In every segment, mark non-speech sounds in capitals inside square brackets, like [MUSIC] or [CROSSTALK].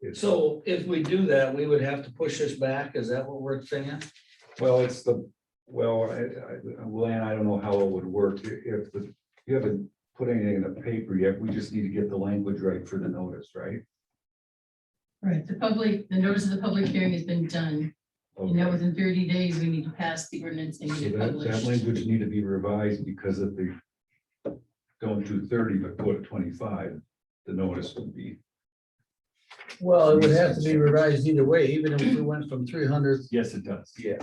It's- So if we do that, we would have to push this back. Is that what we're saying? Well, it's the, well, I, I, Luann, I don't know how it would work, I- if, the- you haven't put anything in the paper yet, we just need to get the language right for the notice, right? Right, the public, the notice of the public hearing has been done, and now within thirty days, we need to pass the ordinance and So get it that, that published. language need to be revised because if they don't do thirty, but go to twenty-five, the notice would be. Well, it would have to be revised either way, even if we went from three hundred. Yes, it does. Yeah.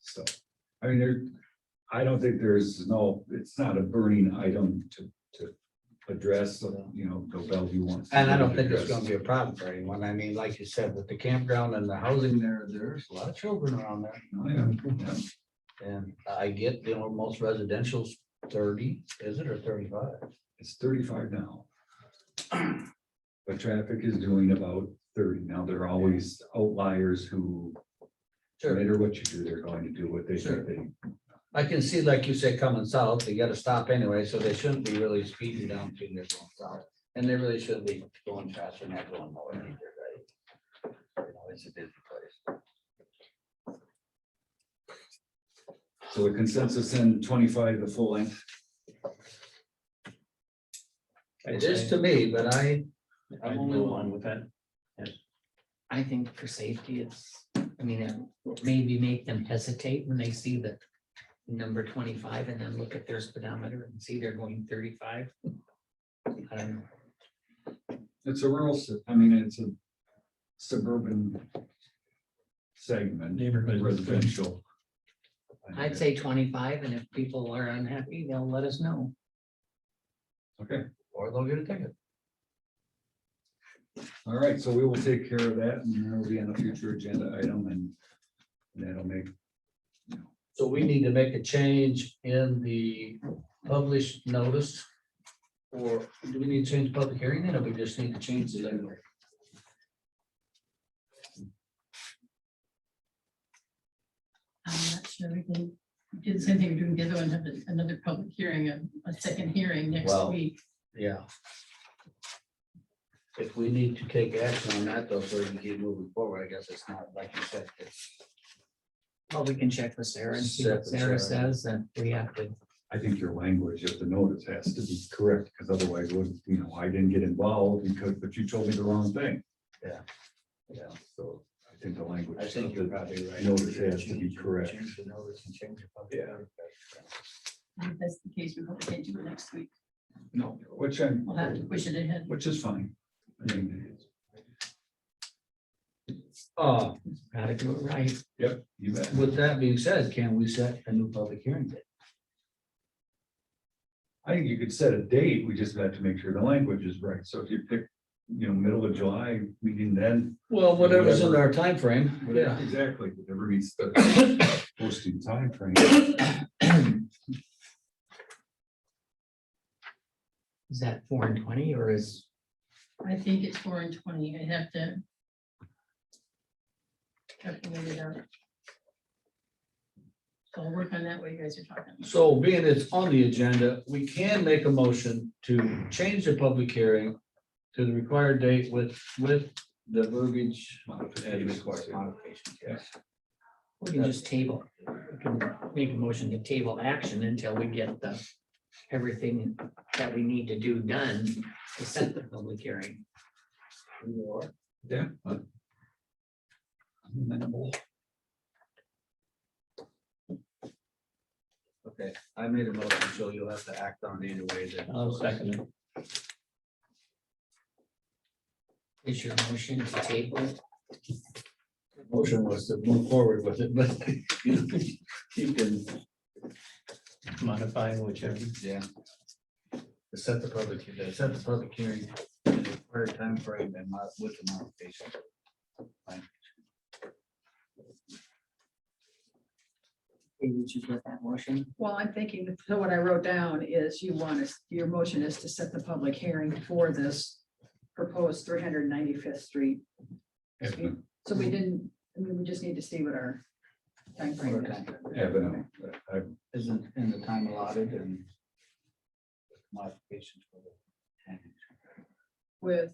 So, I mean, there, I don't think there's no, it's not a burning item to, to address, you know, go Bellevue you want. And I don't think it's gonna be a problem for anyone. I mean, like you said, with the campground and the housing there, there's a lot of children around there. Oh, yeah, yeah. And I get, you know, most residential's thirty, is it, or thirty-five? It's thirty-five now. But traffic is doing about thirty. Now, there are always outliers who, no Sure, matter what you do, they're going to do what they Sure. think they. I can see, like you say, coming south, they gotta stop anyway, so they shouldn't be really speeding down through there going south. And they really shouldn't be going faster than that going north either, right? You know, It's a busy place. So the consensus in twenty-five, the full length. It is to me, but I, I'm I'm only only one with that. I think for safety, it's, I mean, it maybe make them hesitate when they see the number twenty-five and then look at their speedometer and see they're going thirty-five. I don't know. It's a rural, s- I mean, it's a suburban segment, Neighborhood. residential. I'd say twenty-five, and if people are unhappy, they'll let us know. Okay, Or they'll get a ticket. all right, so we will take care of that and that'll be on a future agenda item and that'll make so we need to make a change in the published notice. Or do we need to change public hearing then, or we just need to change the language? I'm not sure we can do the same thing we're doing the other one, have another public hearing, a, a second hearing next Well, week. Yeah. If we need to take action on that though, so we can keep moving forward, I guess it's not like you said. it's- Well, we can check with Sarah and see what Check with Sarah Sarah. says, and we have to, I think your language of the notice has to be correct, because otherwise, it would, you know, I didn't get involved because, but you told me the wrong thing. Yeah, So I think the language. I think of you're the- probably right. Notice has to be Change- correct. Change the notice and change the public Yeah. hearing. If that's the case, we hope they do it next week. No, which I'm, We'll have to push it ahead. which is fine. I mean, Uh, gotta do it right. Yep, you bet. with that being said, can we set a new public hearing date? I think you could set a date, we just have to make sure the language is right. So if you pick, you know, middle of July, we can then. Well, whatever's in our time frame. yeah. Exactly, whatever meets the posting timeframe. Is that four and twenty, or is, I think it's four and twenty. I'd have to. Calculate it out. So I'll work on that while you guys are talking. So being it's on the agenda, we can make a motion to change the public hearing to the required date with, with the verbiage. and required modifications, yes. we can just table? We can Make a motion to table action until we get the, everything that we need to do done to set the public hearing. Yeah. uh, amenable. Okay, I made a motion, so you'll have to act on it either way then. I'll second it. Is your motion to table? Motion was to move forward with it, but [LAUGHS] you- you can, Modify whichever. yeah. Set the public, set the public hearing, in the required time frame and mod- with the modification. Did you get that motion? Well, I'm thinking, so what I wrote down is you want us, your motion is to set the public hearing for this proposed three hundred ninety-fifth street. Have an- So we didn't, I mean, we just need to see what our timeframe is. have an- I Isn't in the time allotted and. Modifications. for the- With